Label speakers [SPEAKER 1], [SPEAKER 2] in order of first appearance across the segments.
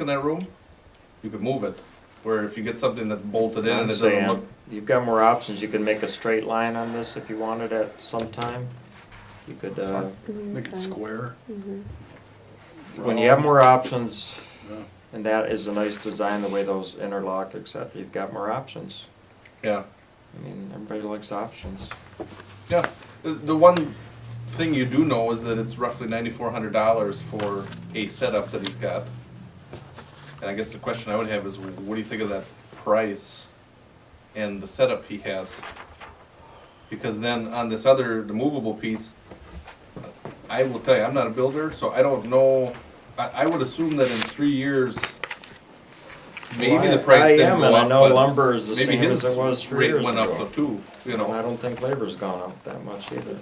[SPEAKER 1] in that room, you could move it. Where if you get something that's bolted in
[SPEAKER 2] That's what
[SPEAKER 1] and it
[SPEAKER 2] I'm
[SPEAKER 1] doesn't
[SPEAKER 2] saying.
[SPEAKER 1] look,
[SPEAKER 2] You've got more options, you can make a straight line on this if you wanted at some time. You could, uh,
[SPEAKER 3] Make it square.
[SPEAKER 2] when you have more options,
[SPEAKER 3] Yeah.
[SPEAKER 2] and that is a nice design, the way those interlock, except you've got more options.
[SPEAKER 1] yeah,
[SPEAKER 2] I mean, everybody likes options.
[SPEAKER 1] yeah. The, the one thing you do know is that it's roughly ninety-four hundred dollars for a setup that he's got. And I guess the question I would have is, what do you think of that price and the setup he has? Because then on this other, the movable piece, I will tell you, I'm not a builder, so I don't know. I, I would assume that in three years,
[SPEAKER 2] Well,
[SPEAKER 1] maybe
[SPEAKER 2] I-
[SPEAKER 1] the price
[SPEAKER 2] I
[SPEAKER 1] didn't
[SPEAKER 2] am,
[SPEAKER 1] go
[SPEAKER 2] and I
[SPEAKER 1] up,
[SPEAKER 2] know
[SPEAKER 1] but
[SPEAKER 2] lumber is the
[SPEAKER 1] maybe
[SPEAKER 2] same as
[SPEAKER 1] his
[SPEAKER 2] it was three
[SPEAKER 1] rate
[SPEAKER 2] years
[SPEAKER 1] went up to
[SPEAKER 2] ago.
[SPEAKER 1] two, you
[SPEAKER 2] And I
[SPEAKER 1] know.
[SPEAKER 2] don't think labor's gone up that much either.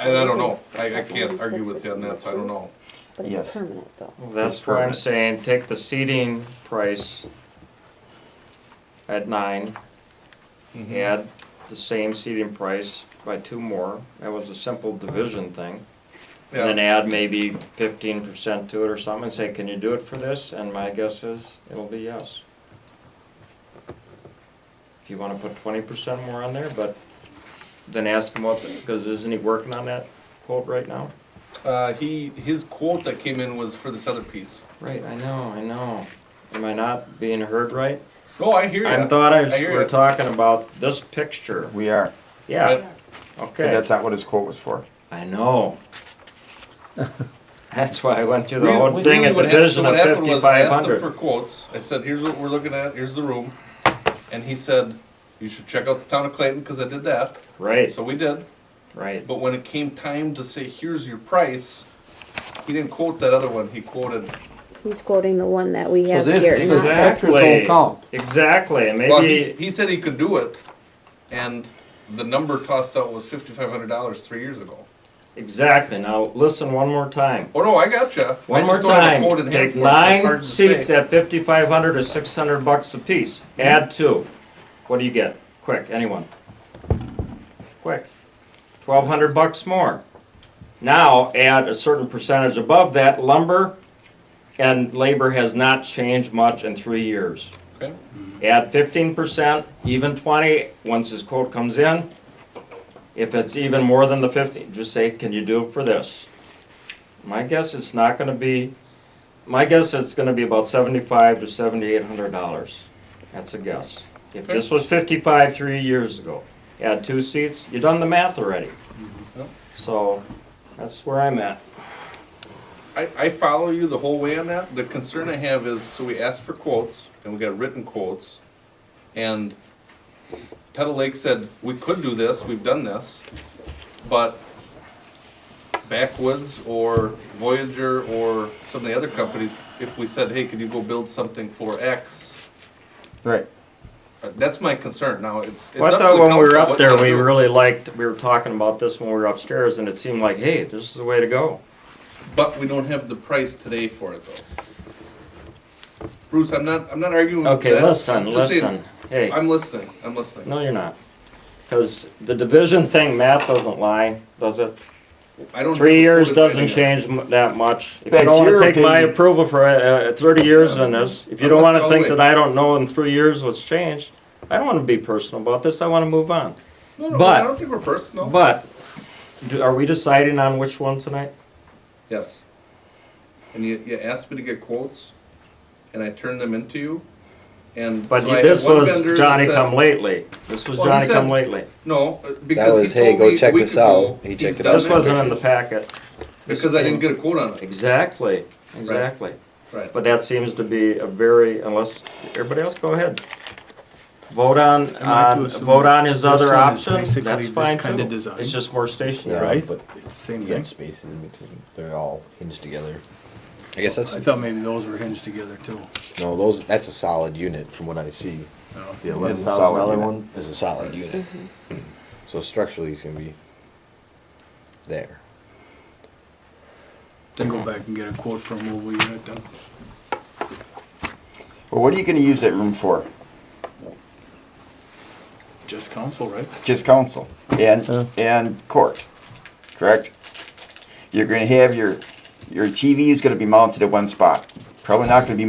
[SPEAKER 1] And I don't know, I, I can't argue with you on that, so I don't know.
[SPEAKER 4] But it's
[SPEAKER 5] Yes.
[SPEAKER 4] permanent though.
[SPEAKER 2] Well, That's
[SPEAKER 5] It's
[SPEAKER 2] where I'm
[SPEAKER 5] permanent.
[SPEAKER 2] saying, take the seating price at nine, add the same seating price by two more, that was a simple division thing. And then
[SPEAKER 1] Yeah,
[SPEAKER 2] add maybe fifteen percent to it or something, and say, can you do it for this? And my guess is, it'll be yes. If you wanna put twenty percent more on there, but then ask him what, because isn't he working on that quote right now?
[SPEAKER 1] uh, he, his quote that came in was for this other piece.
[SPEAKER 2] Right, I know, I know. Am I not being heard right?
[SPEAKER 1] No, I hear
[SPEAKER 2] I
[SPEAKER 1] you,
[SPEAKER 2] thought I,
[SPEAKER 1] I hear
[SPEAKER 2] we're
[SPEAKER 1] ya.
[SPEAKER 2] talking about this picture.
[SPEAKER 5] We are,
[SPEAKER 2] Yeah,
[SPEAKER 5] but
[SPEAKER 2] okay.
[SPEAKER 5] that's not what his quote was for.
[SPEAKER 2] I know. That's why I went through the
[SPEAKER 1] Really-
[SPEAKER 2] whole thing
[SPEAKER 1] really
[SPEAKER 2] at the
[SPEAKER 1] what hap- so
[SPEAKER 2] vision
[SPEAKER 1] what
[SPEAKER 2] of
[SPEAKER 1] happened was I
[SPEAKER 2] fifty-five
[SPEAKER 1] asked him For
[SPEAKER 2] hundred.
[SPEAKER 1] quotes, I said, here's what we're looking at, here's the room, and he said, you should check out the town of Clayton, cause I did that,
[SPEAKER 2] Right,
[SPEAKER 1] so we did.
[SPEAKER 2] right.
[SPEAKER 1] But when it came time to say, here's your price, he didn't quote that other one, he quoted,
[SPEAKER 4] He's quoting the one that we have
[SPEAKER 6] this-
[SPEAKER 4] here.
[SPEAKER 6] this
[SPEAKER 4] not that.
[SPEAKER 6] actual-
[SPEAKER 2] Exactly.
[SPEAKER 6] count.
[SPEAKER 2] Exactly, and
[SPEAKER 1] well, he,
[SPEAKER 2] maybe,
[SPEAKER 1] he said he could do it, and the number tossed out was fifty-five hundred dollars three years ago.
[SPEAKER 2] exactly. Now, listen one more time.
[SPEAKER 1] Oh no, I gotcha. I
[SPEAKER 2] One
[SPEAKER 1] just
[SPEAKER 2] more
[SPEAKER 1] don't have a
[SPEAKER 2] time.
[SPEAKER 1] quote in hand for
[SPEAKER 2] Take
[SPEAKER 1] it, so it's hard
[SPEAKER 2] nine
[SPEAKER 1] to
[SPEAKER 2] seats
[SPEAKER 1] say.
[SPEAKER 2] at fifty-five hundred or six hundred bucks apiece. Add two. What do you get? Quick, anyone? Quick. Twelve hundred bucks more. Now, add a certain percentage above that lumber and labor has not changed much in three years.
[SPEAKER 1] Okay.
[SPEAKER 2] Add fifteen percent, even twenty, once his quote comes in. If it's even more than the fifteen, just say, can you do it for this? My guess it's not gonna be, my guess it's gonna be about seventy-five to seventy-eight hundred dollars. That's a guess. If this was fifty-five three years ago, add two seats, you done the math already.
[SPEAKER 1] Yep.
[SPEAKER 2] So, that's where I'm at.
[SPEAKER 1] I, I follow you the whole way on that. The concern I have is, so we asked for quotes, and we got written quotes, and Pedal Lake said, we could do this, we've done this, but Backwoods or Voyager or some of the other companies, if we said, hey, can you go build something for X?
[SPEAKER 5] Right.
[SPEAKER 1] Uh, That's my concern. Now, it's, it's
[SPEAKER 2] Well, I
[SPEAKER 1] up to
[SPEAKER 2] thought
[SPEAKER 1] the
[SPEAKER 2] when we were
[SPEAKER 1] council
[SPEAKER 2] up
[SPEAKER 1] what
[SPEAKER 2] there,
[SPEAKER 1] they
[SPEAKER 2] we
[SPEAKER 1] do.
[SPEAKER 2] really liked, we were talking about this when we were upstairs, and it seemed like, hey, this is the way to go.
[SPEAKER 1] But we don't have the price today for it though. Bruce, I'm not, I'm not arguing with that.
[SPEAKER 2] Okay, listen,
[SPEAKER 1] I'm just saying-
[SPEAKER 2] listen. Hey,
[SPEAKER 1] I'm listening, I'm listening.
[SPEAKER 2] no, you're not. Because the division thing, math doesn't lie, does it?
[SPEAKER 1] I don't.
[SPEAKER 2] Three years doesn't
[SPEAKER 1] Anyway.
[SPEAKER 2] change m- that much. If you
[SPEAKER 5] That's
[SPEAKER 2] don't want to
[SPEAKER 5] your
[SPEAKER 2] take my
[SPEAKER 5] opinion.
[SPEAKER 2] approval for uh, uh, thirty years on this, if you
[SPEAKER 1] I'm not
[SPEAKER 2] don't want to
[SPEAKER 1] gonna
[SPEAKER 2] think
[SPEAKER 1] wait.
[SPEAKER 2] that I don't know in three years what's changed, I don't want to be personal about this, I want to move on.
[SPEAKER 1] No, no,
[SPEAKER 2] but-
[SPEAKER 1] I don't think we're personal.
[SPEAKER 2] But, do- are we deciding on which one tonight?
[SPEAKER 1] Yes. And you, you asked me to get quotes, and I turned them into you, and.
[SPEAKER 2] But
[SPEAKER 1] so I had
[SPEAKER 2] this
[SPEAKER 1] one
[SPEAKER 2] was
[SPEAKER 1] vendor that
[SPEAKER 2] Johnny
[SPEAKER 1] said-
[SPEAKER 2] come lately. This was
[SPEAKER 1] Well, he
[SPEAKER 2] Johnny
[SPEAKER 1] said-
[SPEAKER 2] come lately.
[SPEAKER 1] No, uh, because he
[SPEAKER 6] was, "Hey,
[SPEAKER 1] told
[SPEAKER 6] go
[SPEAKER 1] me a
[SPEAKER 6] check
[SPEAKER 1] week
[SPEAKER 6] this out."
[SPEAKER 1] ago.
[SPEAKER 6] He
[SPEAKER 1] he's
[SPEAKER 6] checked it
[SPEAKER 1] done
[SPEAKER 6] out.
[SPEAKER 2] This wasn't in the packet.
[SPEAKER 1] Because I didn't get a quote on it,
[SPEAKER 2] Exactly, exactly.
[SPEAKER 1] right.
[SPEAKER 2] But that seems to be a very, unless, everybody else, go ahead. Vote on,
[SPEAKER 3] I might do
[SPEAKER 2] on-
[SPEAKER 3] some-
[SPEAKER 2] vote on his
[SPEAKER 3] this
[SPEAKER 2] other
[SPEAKER 3] one is
[SPEAKER 2] option,
[SPEAKER 3] basically
[SPEAKER 2] that's
[SPEAKER 3] this
[SPEAKER 2] fine
[SPEAKER 3] kind of
[SPEAKER 2] too.
[SPEAKER 3] design.
[SPEAKER 2] It's just more
[SPEAKER 6] Yeah,
[SPEAKER 2] stationary.
[SPEAKER 3] Right?
[SPEAKER 6] But
[SPEAKER 3] It's the same
[SPEAKER 6] you got
[SPEAKER 3] thing.
[SPEAKER 6] spaces in between. They're all hinged together. I guess that's
[SPEAKER 3] I thought maybe those were hinged together too.
[SPEAKER 6] no. Those that's a solid unit from what I see.
[SPEAKER 3] No.
[SPEAKER 6] The eleven
[SPEAKER 5] solid
[SPEAKER 6] thousand dollar
[SPEAKER 5] unit.
[SPEAKER 6] one is a solid unit. So structurally, it's gonna be there.
[SPEAKER 3] Then go back and get a quote from mobile unit then.
[SPEAKER 5] Well, what are you gonna use that room for?
[SPEAKER 3] Just council, right?
[SPEAKER 5] Just council and, and court, correct? You're gonna have your, your TV is gonna be mounted at one spot, Probably not gonna be